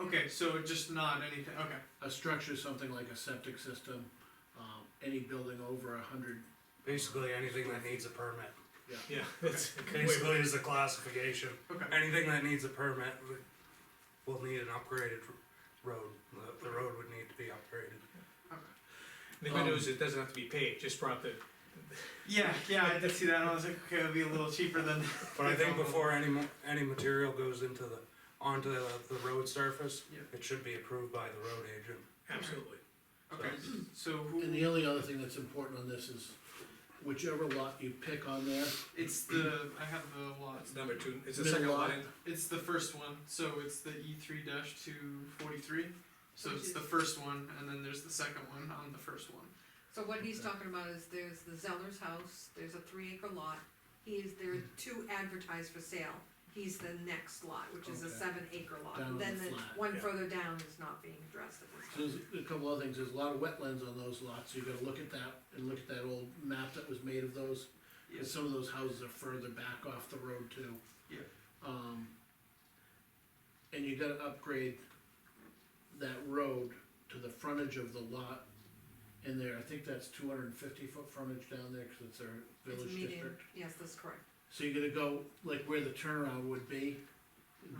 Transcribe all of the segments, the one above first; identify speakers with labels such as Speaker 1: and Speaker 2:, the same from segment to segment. Speaker 1: Okay, so just not anything, okay,
Speaker 2: A structure, something like a septic system, um, any building over a hundred,
Speaker 3: Basically, anything that needs a permit.
Speaker 4: Yeah, that's
Speaker 3: Basically, is the classification.
Speaker 1: okay.
Speaker 3: Anything that needs a permit would- will need an upgraded r- road. The, the road would need to be upgraded.
Speaker 4: the good news, is it doesn't have to be paid, just brought the,
Speaker 1: Yeah, yeah, I did see that, and I was like, okay, it'll be a little cheaper than.
Speaker 3: But I think before any mo- any material goes into the onto the, the road surface,
Speaker 1: Yeah.
Speaker 3: it should be approved by the road agent.
Speaker 4: absolutely.
Speaker 1: Okay, so
Speaker 2: and the
Speaker 1: who,
Speaker 2: only other thing that's important on this is whichever lot you pick on there,
Speaker 1: it's the, I have the lot,
Speaker 4: That's number two, it's the
Speaker 2: Middle
Speaker 4: second
Speaker 2: lot.
Speaker 4: line,
Speaker 1: it's the first one, so it's the E three dash two forty-three. So it's the first one, and then there's the second one on the first one.
Speaker 5: So what he's talking about is there's the Zeller's house, there's a three acre lot, he is, there are two advertised for sale. He's the next lot, which is a
Speaker 2: Okay.
Speaker 5: seven acre lot,
Speaker 2: Down on
Speaker 5: then
Speaker 2: the
Speaker 5: the
Speaker 2: flat,
Speaker 5: one
Speaker 4: yeah.
Speaker 5: further down is not being addressed at this
Speaker 2: So
Speaker 5: time.
Speaker 2: there's a couple other things, there's a lot of wetlands on those lots, so you gotta look at that, and look at that old map that was made of those. And some of those houses are further back off the road too.
Speaker 1: Yeah.
Speaker 2: Um, and you gotta upgrade that road to the frontage of the lot in there, I think that's two hundred and fifty foot frontage down there, cause it's our
Speaker 5: It's
Speaker 2: village
Speaker 5: meeting-
Speaker 2: district.
Speaker 5: Yes, that's correct,
Speaker 2: So you're gonna go, like where the turnaround would be,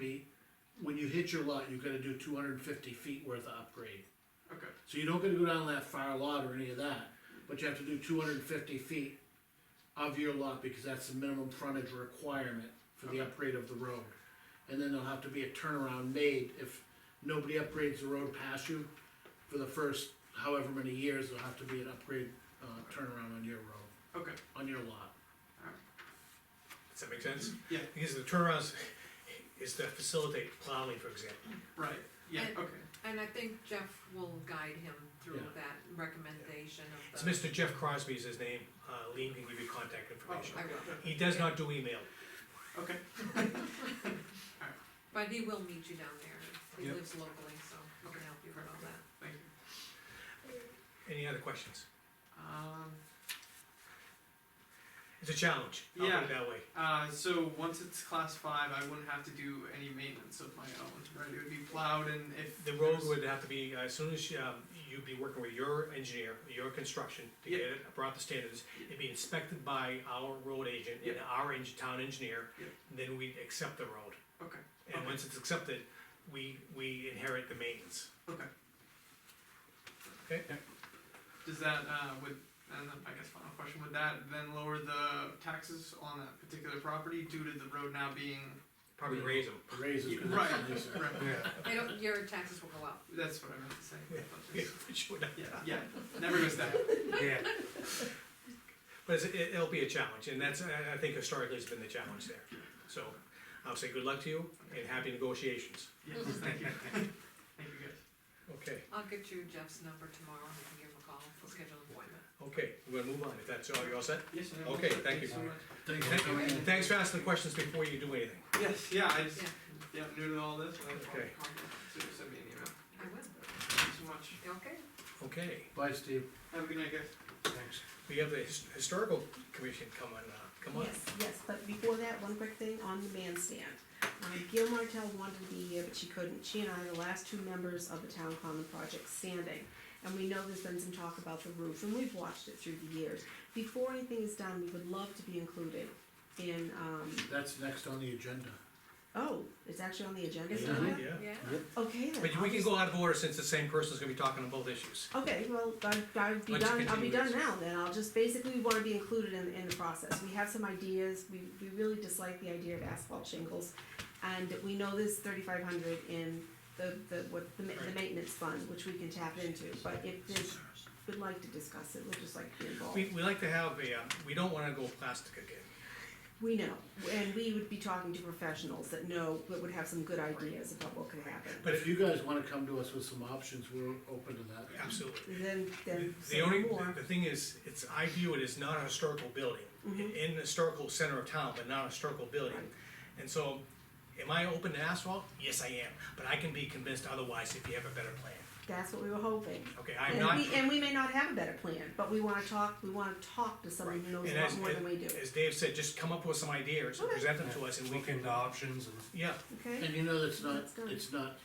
Speaker 2: be, when you hit your lot, you gotta do two hundred and fifty feet worth of upgrade.
Speaker 1: Okay,
Speaker 2: So you don't gotta go down that far lot or any of that, but you have to do two hundred and fifty feet of your lot, because that's the minimum frontage requirement for the upgrade of the road. And then there'll have to be a turnaround made, if nobody upgrades the road past you, for the first however many years, there'll have to be an upgrade, uh, turnaround on your road,
Speaker 1: okay,
Speaker 2: on your lot.
Speaker 4: does that make sense?
Speaker 1: Yeah.
Speaker 4: Because the turnarounds is to facilitate plowing, for example.
Speaker 1: right, yeah,
Speaker 5: And-
Speaker 1: okay.
Speaker 5: and I think Jeff will guide him through
Speaker 2: Yeah.
Speaker 5: that recommendation
Speaker 4: It's
Speaker 5: of the.
Speaker 4: Mr. Jeff Crosby is his name, uh, Lean can give you
Speaker 5: Oh,
Speaker 4: contact information.
Speaker 5: I will,
Speaker 4: He does not do email,
Speaker 1: Okay,
Speaker 5: but he will meet you down there, he
Speaker 4: Yep.
Speaker 5: lives locally, so he can help you with all that.
Speaker 1: thank you.
Speaker 4: any other questions?
Speaker 1: Um,
Speaker 4: It's a challenge, I'll put
Speaker 1: Yeah.
Speaker 4: it that way.
Speaker 1: Uh, so once it's class five, I wouldn't have to do any maintenance of my own, right? It would be plowed and if.
Speaker 4: The road
Speaker 1: there's-
Speaker 4: would have to be, as soon as, um, you'd be working with your engineer, your construction, to get
Speaker 1: Yeah.
Speaker 4: it, brought the standards, it'd be inspected by our road agent and
Speaker 1: Yeah.
Speaker 4: our eng- town engineer,
Speaker 1: Yeah.
Speaker 4: then we'd accept the road.
Speaker 1: Okay,
Speaker 4: And
Speaker 1: Okay.
Speaker 4: once it's accepted, we, we inherit the maintenance.
Speaker 1: okay.
Speaker 4: Okay.
Speaker 1: Does that, uh, would, and then I guess final question, would that then lower the taxes on that particular property due to the road now being?
Speaker 4: Probably raise them.
Speaker 2: Raise is gonna
Speaker 1: Right,
Speaker 2: have to be certain.
Speaker 1: right,
Speaker 3: Yeah.
Speaker 5: They don't, your taxes will go up,
Speaker 1: that's what I meant to say.
Speaker 4: Yeah, for sure.
Speaker 1: Yeah, yeah, never goes down.
Speaker 3: Yeah.
Speaker 4: But it's, it, it'll be a challenge, and that's, I, I think historically has been the challenge there. So, I'll say good luck to you and happy negotiations.
Speaker 1: Yes, thank you. Thank you guys.
Speaker 4: Okay,
Speaker 5: I'll get you Jeff's number tomorrow, and you can give him a call, we'll schedule an appointment.
Speaker 4: okay, we're gonna move on, if that's all, you all set?
Speaker 1: Yes, I know.
Speaker 4: Okay, thank you.
Speaker 1: so much.
Speaker 2: Thanks for
Speaker 4: Thank you.
Speaker 2: coming in.
Speaker 4: Thanks for asking the questions before you do anything.
Speaker 1: Yes, yeah, I just,
Speaker 5: Yeah.
Speaker 1: yeah, new to all this, and I
Speaker 4: Okay.
Speaker 1: so just send me an email.
Speaker 5: I will,
Speaker 1: Thank you so much.
Speaker 5: okay?
Speaker 4: Okay,
Speaker 2: Bye, Steve.
Speaker 1: Have a good night, guys.
Speaker 3: Thanks.
Speaker 4: we have the his- historical commission come on, uh, come on.
Speaker 6: Yes, yes, but before that, one quick thing on the bandstand. Um, Gail Martell wanted to be here, but she couldn't. She and I are the last two members of the Town Common Project standing. And we know there's been some talk about the roof, and we've watched it through the years. Before anything is done, we would love to be included in, um,
Speaker 2: That's next on the agenda.
Speaker 6: oh, it's actually on the agenda
Speaker 2: Is it
Speaker 6: now?
Speaker 4: Yeah,
Speaker 5: Yeah.
Speaker 6: Okay, then.
Speaker 4: but we can go out of order since the same person's gonna be talking on both issues.
Speaker 6: Okay, well, I, I'll be
Speaker 4: Why don't you
Speaker 6: done, I'll be
Speaker 4: continue
Speaker 6: done
Speaker 4: this?
Speaker 6: now then, I'll just, basically, we wanna be included in, in the process, we have some ideas, we, we really dislike the idea of asphalt shingles. And we know there's thirty-five hundred in the, the, what, the ma- the
Speaker 4: Right.
Speaker 6: maintenance fund, which we can tap into, but if there's, would like to discuss it, we'd just like to be
Speaker 4: We,
Speaker 6: involved.
Speaker 4: we like to have a, uh, we don't wanna go plastic again.
Speaker 6: We know, and we would be talking to professionals that know, that would have some good ideas about what could happen,
Speaker 4: But
Speaker 2: If
Speaker 4: if,
Speaker 2: you guys wanna come to us with some options, we're open to that.
Speaker 4: absolutely.
Speaker 6: then, then
Speaker 4: The
Speaker 6: say
Speaker 4: only,
Speaker 6: more,
Speaker 4: the thing is, it's, I view it as not a historical building,
Speaker 6: Mm-hmm.
Speaker 4: in in the historical center of town, but not a historical building.
Speaker 6: Right.
Speaker 4: And so, am I open to asphalt? Yes, I am, but I can be convinced otherwise if you have a better plan.
Speaker 6: that's what we were hoping.
Speaker 4: Okay, I'm
Speaker 6: And
Speaker 4: not.
Speaker 6: we, and we may not have a better plan, but we wanna talk, we wanna talk to someone who knows
Speaker 4: And
Speaker 6: a lot
Speaker 4: as-
Speaker 6: more than we do,
Speaker 4: As Dave said, just come up with some ideas, and
Speaker 6: Okay.
Speaker 4: present them to us and we
Speaker 3: Look
Speaker 4: can,
Speaker 3: into options and
Speaker 4: yeah,
Speaker 6: okay?
Speaker 2: And you know, that's not,
Speaker 6: That's done.
Speaker 2: it's not